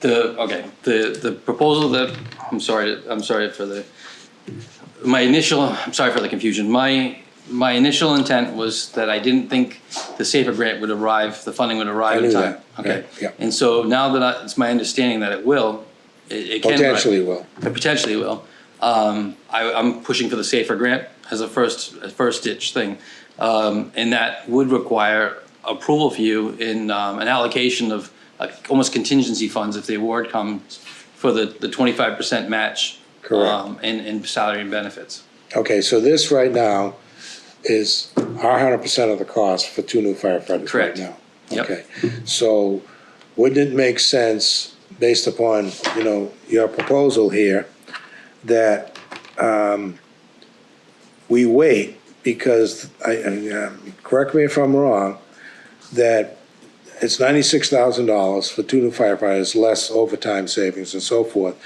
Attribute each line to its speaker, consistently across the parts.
Speaker 1: the, okay, the, the proposal that, I'm sorry, I'm sorry for the, my initial, I'm sorry for the confusion. My, my initial intent was that I didn't think the SAFER grant would arrive, the funding would arrive
Speaker 2: I
Speaker 1: in
Speaker 2: knew
Speaker 1: time.
Speaker 2: that,
Speaker 1: Okay.
Speaker 2: right, yeah.
Speaker 1: And so now that I, it's my understanding that it will, it, it can arrive.
Speaker 2: Potentially will.
Speaker 1: It Potentially will. Um, I, I'm pushing for the SAFER grant as a first, a first ditch thing. Um, and that would require approval for you in, um, an allocation of, like, almost contingency funds if the award comes for the, the twenty-five percent match.
Speaker 2: Correct.
Speaker 1: um, And, and salary and benefits.
Speaker 2: Okay, so this right now is our hundred percent of the cost for two new firefighters right
Speaker 1: Correct.
Speaker 2: now.
Speaker 1: Yep.
Speaker 2: Okay, so wouldn't it make sense, based upon, you know, your proposal here, that um, we wait, because I, and, um, correct me if I'm wrong, that it's ninety-six thousand dollars for two new firefighters, less overtime savings and so forth,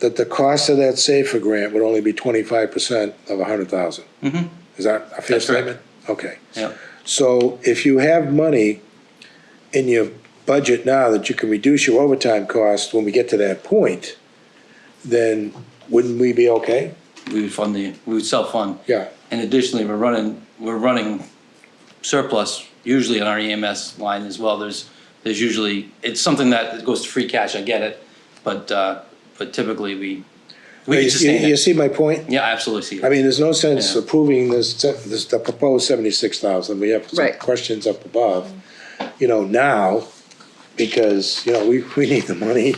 Speaker 2: that the cost of that SAFER grant would only be twenty-five percent of a hundred thousand. Is that
Speaker 1: Mm-hmm.
Speaker 2: a fair
Speaker 1: That's correct.
Speaker 2: statement? Okay.
Speaker 1: Yep.
Speaker 2: So if you have money in your budget now that you can reduce your overtime cost when we get to that point, then wouldn't we be okay?
Speaker 1: We would fund the, we would self-fund.
Speaker 2: Yeah.
Speaker 1: And additionally, we're running, we're running surplus usually on our EMS line as well. There's, there's usually, it's something that goes to free cash, I get it. But, uh, but typically we, we can
Speaker 2: You-
Speaker 1: sustain
Speaker 2: You you
Speaker 1: it.
Speaker 2: see my point?
Speaker 1: Yeah, I absolutely see
Speaker 2: I
Speaker 1: it.
Speaker 2: mean, there's no sense
Speaker 1: Yeah.
Speaker 2: approving this, this, the proposed seventy-six thousand, we have some
Speaker 3: Right.
Speaker 2: questions up above, you know, now, because, you know, we, we need the money,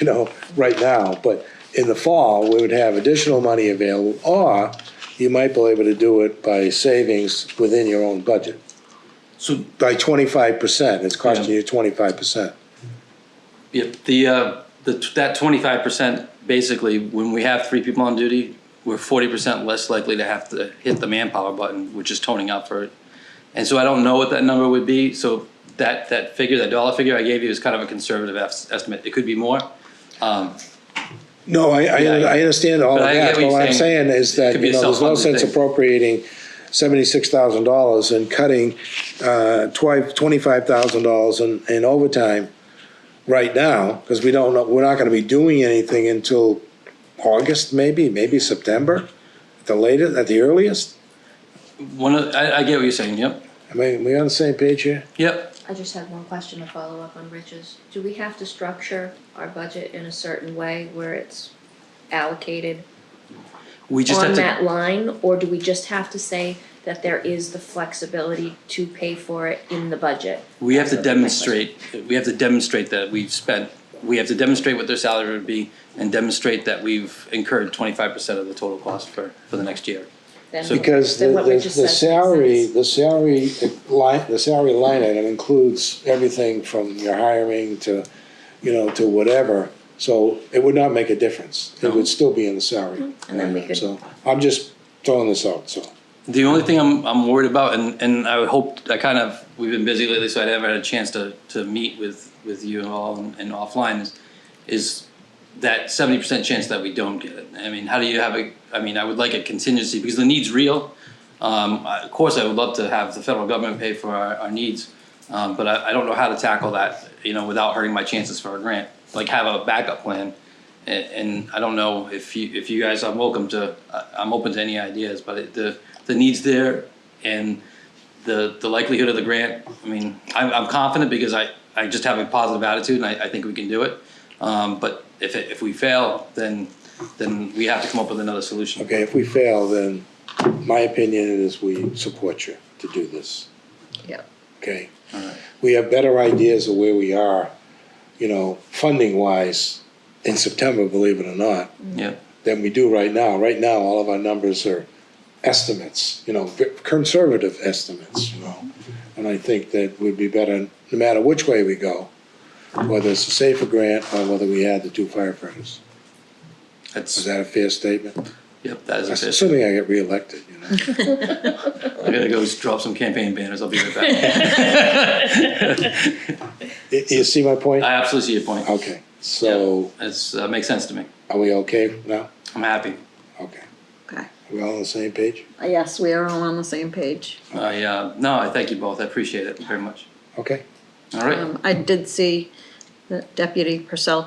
Speaker 2: you know, right now, but in the fall, we would have additional money available, or you might be able to do it by savings within your own budget,
Speaker 1: So,
Speaker 2: by twenty-five percent, it's costing
Speaker 1: Yeah.
Speaker 2: you twenty-five percent.
Speaker 1: yeah, the, uh, the, that twenty-five percent, basically, when we have three people on duty, we're forty percent less likely to have to hit the manpower button, which is toning up for it. And so I don't know what that number would be, so that, that figure, that dollar figure I gave you is kind of a conservative es- estimate. It could be more.
Speaker 2: No, I, I,
Speaker 1: Yeah,
Speaker 2: I understand all of
Speaker 1: but I get
Speaker 2: that,
Speaker 1: what
Speaker 2: but
Speaker 1: you're
Speaker 2: what I'm
Speaker 1: saying.
Speaker 2: saying is
Speaker 1: It
Speaker 2: that,
Speaker 1: could be
Speaker 2: you
Speaker 1: a
Speaker 2: know, there's no
Speaker 1: self-funded
Speaker 2: sense
Speaker 1: thing.
Speaker 2: appropriating seventy-six thousand dollars and cutting, uh, twi- twenty-five thousand dollars in, in overtime right now, because we don't know, we're not gonna be doing anything until August, maybe, maybe September, at the latest, at the earliest.
Speaker 1: One of, I, I get what you're saying, yep,
Speaker 2: I mean, we on the same page here?
Speaker 1: yep.
Speaker 3: I just have one question to follow up on Rich's. Do we have to structure our budget in a certain way where it's allocated
Speaker 1: We just
Speaker 3: on
Speaker 1: have
Speaker 3: that
Speaker 1: to,
Speaker 3: line? Or do we just have to say that there is the flexibility to pay for it in the budget?
Speaker 1: we have to
Speaker 3: That's my question.
Speaker 1: demonstrate, we have to demonstrate that we've spent, we have to demonstrate what their salary would be and demonstrate that we've incurred twenty-five percent of the total cost for, for the next year.
Speaker 3: Then-
Speaker 2: Because the,
Speaker 3: then what
Speaker 2: the
Speaker 3: Rich just
Speaker 2: the
Speaker 3: said makes
Speaker 2: salary,
Speaker 3: sense.
Speaker 2: the salary line, the salary line item includes everything from your hiring to, you know, to whatever. So it would not make a difference. It
Speaker 1: No.
Speaker 2: would still be in the salary.
Speaker 3: Mm-hmm. And then we
Speaker 2: line item.
Speaker 3: could-
Speaker 2: So I'm just throwing this out, so.
Speaker 1: The only thing I'm, I'm worried about, and, and I hope, I kind of, we've been busy lately, so I never had a chance to, to meet with, with you and all and and offline is, is that seventy percent chance that we don't get it. I mean, how do you have a, I mean, I would like a contingency because the need's real. Um, I- of course, I would love to have the federal government pay for our, our needs, um, but I, I don't know how to tackle that, you know, without hurting my chances for a grant. Like have a backup plan, and, and I don't know if you if you guys, I'm welcome to, I- I'm open to any ideas, but it, the the needs there and the the likelihood of the grant. I mean, I'm, I'm confident because I I just have a positive attitude and I, I think we can do it. Um, but if it, if we fail, then then we have to come up with another solution.
Speaker 2: Okay, if we fail, then my opinion is we support you to do this.
Speaker 3: Yeah.
Speaker 2: Okay?
Speaker 1: Alright.
Speaker 2: We have better ideas of where we are, you know, funding-wise in September, believe it or not.
Speaker 1: Yeah.
Speaker 2: than we do right now. Right now, all of our numbers are estimates, you know, v- conservative estimates, you know. And I think that would be better, no matter which way we go, whether it's a safer grant or whether we add the two firefighters. Is
Speaker 1: That's
Speaker 2: that a fair statement?
Speaker 1: yep. That is a bit.
Speaker 2: Assuming I get reelected, you know.
Speaker 1: I gotta go drop some campaign banners. I'll be right back.
Speaker 2: Y- You see my point?
Speaker 1: I absolutely see your point.
Speaker 2: Okay, so
Speaker 1: It's uh, makes sense to me.
Speaker 2: are we okay now?
Speaker 1: I'm happy.
Speaker 2: Okay.
Speaker 4: Okay.
Speaker 2: Are we all on the same page?
Speaker 4: Yes, we are all on the same page.
Speaker 1: I uh, no, I thank you both. I appreciate it very much.
Speaker 2: Okay.
Speaker 1: All right.
Speaker 4: Um, I did see that Deputy Purcell